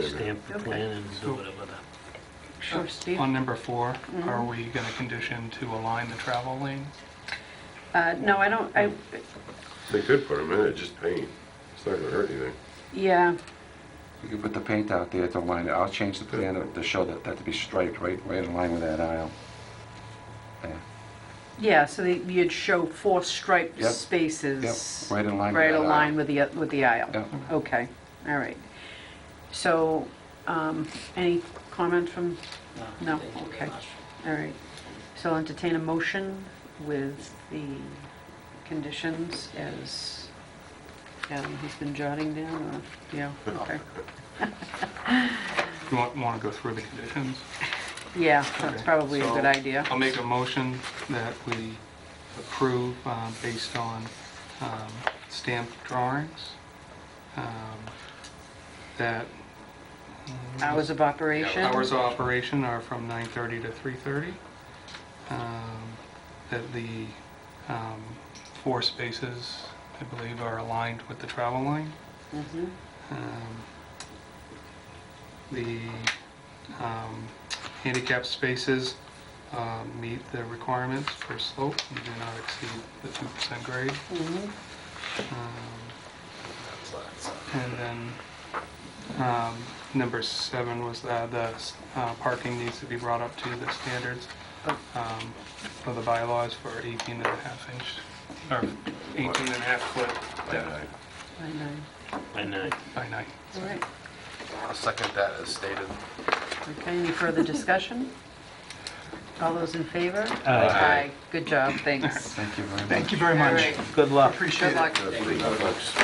Stamp the plan and do whatever the... Oh, Sure, Steve. Mm-hmm. On number four, are we going to condition to align the travel lane? Uh, No, I don't, I, They could put them in it, just paint. It's not gonna hurt anything. yeah, You can put the paint out there to line it. I'll change the plan to show that, that to be striped, right, right in line with that aisle. There. yeah, so they- you'd show four striped Yep. Yep, spaces. right in line with Right that aligned aisle. with the, uh, with the aisle. Yep. Okay, all right. So, um, any comment from, No, thank you very okay. much. all right. So I'll entertain a motion with the conditions as, um, he's been jotting down, or, yeah, okay. Do you want to go through the conditions? Yeah, that's Okay. probably a good So, idea. I'll make a motion that we approve uh, based on um, stamped drawings, um, that... uh, Hours of operation? Hours of operation are from 9:30 to 3:30. Um, That the um, four spaces, I believe, are aligned with the travel lane. Mhm. Um, The um, handicap spaces uh, meet the requirements for slope and do not exceed the 2% grade. Mhm. Um, and then, um, number seven was uh, the uh, parking needs to be brought up to the standards um, of the bylaws for 18 and a half inch, or 18 and a half foot depth I know. By nine. by night. All right. I'll second that as stated. Okay, any further discussion? All those in favor? Aye. Good job, thanks. Thank you very much. Thank you very All right, Good luck. good luck.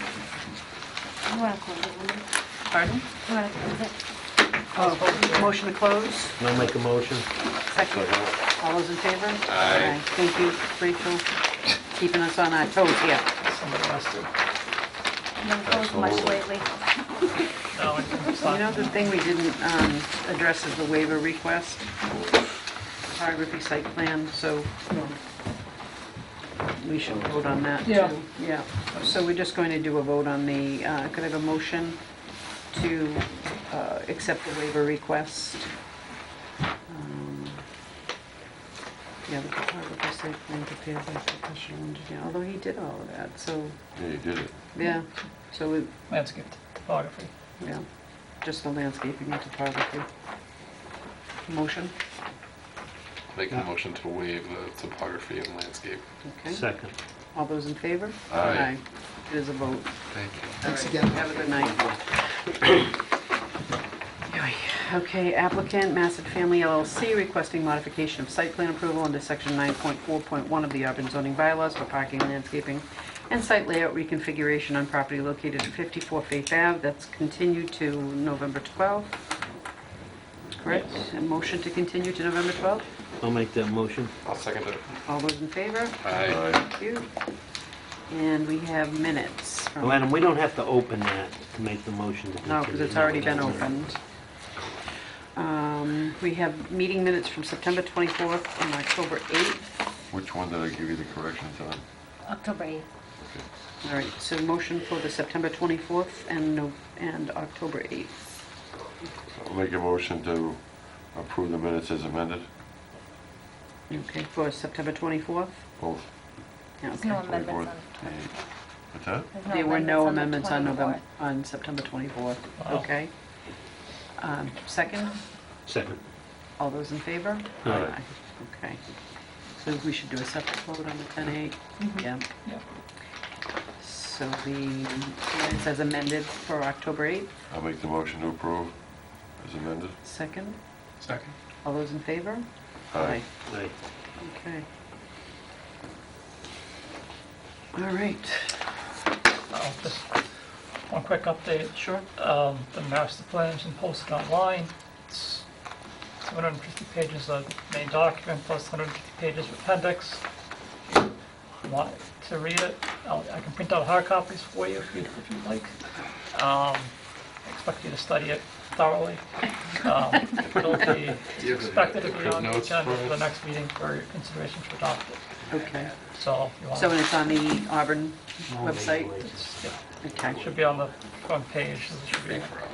You want to close it, will you? Pardon? You want to close it? Oh, motion to close, I'll make a motion. second. All those in favor? Aye. Thank you, Rachel, keeping us on our toes here. You haven't closed much lately. You know, the thing we didn't um, address is the waiver request, topography site plan, so we should vote on that too. Yeah. Yeah, so we're just going to do a vote on the, uh, could I have a motion to uh, accept the waiver request? Um, Yeah, the topography site plan prepared by professional engineer, although he did all of that, so, Yeah, you did it. yeah, so we, landscape topography. yeah, just the landscaping and topography. Motion, Make a motion to waive the topography and landscape. okay. Second. All those in favor? Aye. It is a vote. Thank you. Thanks again. Have a good night. Okay, applicant Massett Family LLC requesting modification of site plan approval under section 9.4.1 of the Auburn zoning bylaws for parking, landscaping, and site layout reconfiguration on property located at 54 Faith Ave. That's continued to November 12th. Correct? A motion to continue to November 12th? I'll make that motion. I'll second it. All those in favor? Aye. Thank you. And we have minutes from... Well, Adam, we don't have to open that to make the motion to continue. No, because it's already been No, no, no. opened. Um, We have meeting minutes from September 24th and October 8th. Which one did I give you the corrections on? October 8th. All right, so motion for the September 24th and, no- and October 8th. I'll make a motion to approve the minutes as amended, Okay, for September 24th? both Yeah, There's okay. no 24th amendments and 8. What's that? on... There were no amendments on November, on September 24th. Wow. Okay. Um, Second, Second. all those in favor? Aye. Okay. So we should do a separate vote on the 10A? Yeah. Yep. So the minutes as amended for October 8th, I'll make the motion to approve as amended. second. Second. All those in favor? Aye. Aye. Okay. All right, Now, Uh, just one quick update. sure. Um, The master plan's been posted online. It's 250 pages of main document plus 150 pages of appendix. If you Want to read it? I'll- I can print out hard copies for you if you'd if you'd like. Um, I Expect you to study it thoroughly. Um, It'll be you have the- expected to the be on the notes agenda for for the us? next meeting for your consideration to adopt it. Okay. So if you want. So it's on the Auburn No, maybe website? later. It's- yeah, Okay. It should be on the front page, so it should be